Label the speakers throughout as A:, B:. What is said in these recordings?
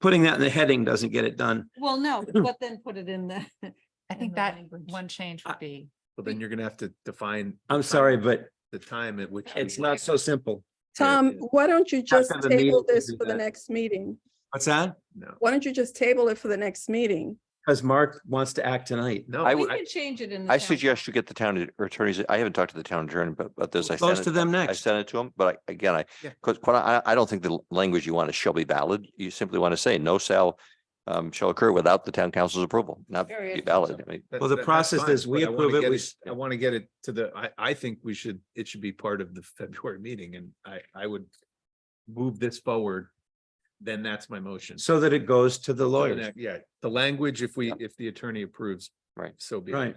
A: putting that in the heading doesn't get it done.
B: Well, no, but then put it in the.
C: I
B: in
C: think
B: the
C: that
B: language.
C: one change
A: I-
C: would be,
D: Well, then you're gonna have to define
A: I'm sorry, but
D: the time at which. we-
A: it's not so simple.
E: Tom, why don't you just
A: have a meeting
E: table
A: to
E: this
A: do
E: for the
A: that.
E: next meeting?
A: What's that?
D: No,
E: Why don't you just table it for the next meeting?
A: Because Mark wants to act tonight.
D: no.
F: I
B: We
F: would-
B: can change it in. the
F: I
B: town
F: suggest you get the town attorneys. I haven't talked to the town attorney, but, but this I
A: Close
F: sent
A: to
F: it,
A: them
F: I
A: next.
F: sent it to him, but I, again, I,
D: Yeah.
F: because I, I don't think the l- language you want is shall be valid. You simply want to say no sale um, shall occur without the town council's approval, not be
B: Period.
F: valid. I mean,
D: That's-
A: Well, the
D: that- that's
A: process
D: fine,
A: is we
D: but I wanna
A: approve it,
D: get
A: we-
D: I want to get it to the, I, I think we should, it should be part of the February meeting and I, I would move this forward. Then that's my motion.
A: So that it goes to the
D: So the
A: lawyers.
D: next- Yeah, the language, if we,
F: Yeah.
D: if the attorney approves.
F: Right.
D: So be. it.
A: Right.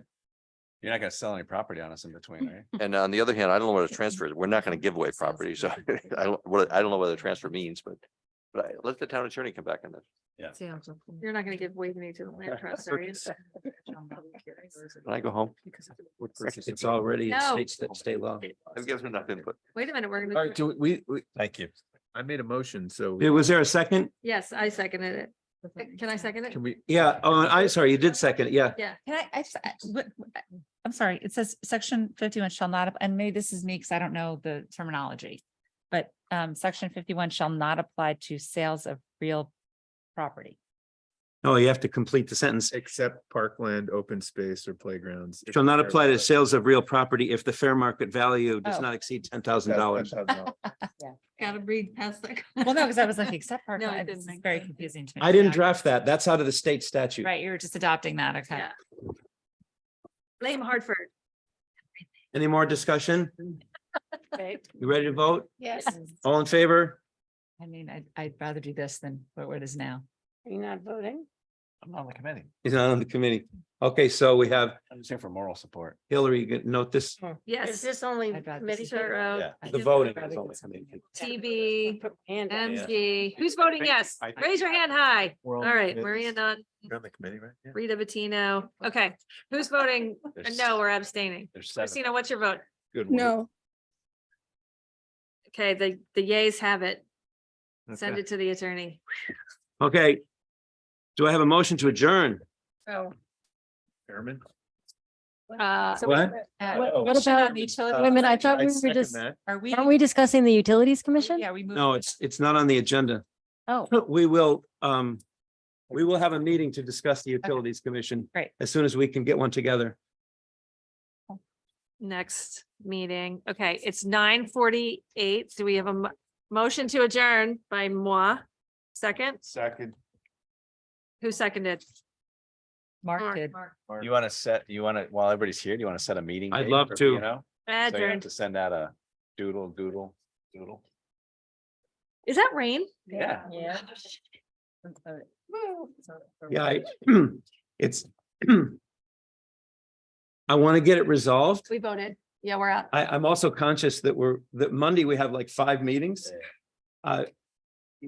G: You're not gonna sell any property on us in between, right?
F: And on the other hand, I don't know what a transfer is. We're not going to give away property, so I don't, what, I don't know what a transfer means, but but I, let the town attorney come back on this.
H: You're not gonna give Waveney to the land trust, are you?
F: Can I go home?
A: It's already in
H: No.
A: state, state law.
F: I've given enough input.
H: Wait a minute, we're
D: All right,
H: gonna,
D: do we, we,
G: Thank you.
D: I made a motion, so
A: Eh, Was there a second?
H: yes, I seconded it. Uh, Can I second it?
D: can we?
A: Yeah. Oh, I'm sorry. You did second. it, Yeah.
H: Yeah,
C: can I, I, just- I- what- what- I'm sorry, it says section fifty-one shall not, ap- and maybe this is me because I don't know the terminology. But um, section fifty-one shall not apply to sales of real property.
A: No, you have to complete the sentence.
D: Except parkland, open space or playgrounds.
A: Shall not apply to sales of real property if the fair market value does
C: Oh.
A: not exceed ten thousand dollars.
H: gotta read past that.
C: Well, no, because I was like, except
H: No, it
C: parkland, this
H: didn't
C: is
H: make
C: very
H: sense.
C: confusing to me.
A: I didn't
C: Yeah,
A: draft that. That's out of the state statute.
C: Right, you were just adopting that, okay.
H: Yeah. Blame Hartford.
A: Any more discussion? You ready to vote?
H: Yes.
A: All in favor?
C: I mean, I'd, I'd rather do this than what what it is now.
H: You're not voting?
G: I'm not on the committee.
A: He's not on the committee. Okay, so we have
G: I'm just here for moral support.
A: Hillary, you can note this,
H: Yes. this only
C: I'd rather
H: committees
C: see-
H: are, uh,
G: Yeah.
A: the voting. is only committee.
H: TB,
G: Yeah.
H: MG, who's voting yes?
G: I think-
H: Raise your hand high. All right, Maria
D: You're
H: Nun,
D: on the committee, right? Yeah.
H: Rita Bettino. Okay, who's voting?
G: There's-
H: No, we're abstaining.
G: There's seven.
H: Christina, what's your vote?
D: Good one.
E: No,
H: Okay, the, the yays have it. Send
D: Okay.
H: it to the attorney.
A: Okay. Do I have a motion to adjourn?
H: So.
D: Chairman.
H: Uh,
A: What?
C: Uh,
D: What-
C: what about the utility?
I: Wait a minute, I thought we were
D: second
I: just,
D: that.
C: Are we?
I: aren't we discussing the utilities
H: Oh,
I: commission?
C: Yeah, we moved.
A: No,
C: to-
A: it's, it's not on the agenda.
I: Oh.
A: We will, um, we will have a meeting to discuss the Utilities Commission.
C: Great.
A: As soon as we can get one together.
H: next meeting. Okay, it's nine forty-eight. Do we have a mo- motion to adjourn by moi? Second,
D: Second.
H: who seconded?
C: Mark did.
G: You wanna set, you wanna, while everybody's here, do you wanna set a meeting?
A: I'd
G: date
A: love
G: for,
A: to.
G: You know, so you have
H: Adjourn.
G: to send out a doodle, doodle, doodle.
H: Is that rain?
G: Yeah.
C: Yeah.
A: Yeah, I, it's. I want to get it resolved.
H: We voted. Yeah, we're out.
A: I, I'm also conscious that we're, that Monday we have like five meetings.
G: Yeah.
A: Uh,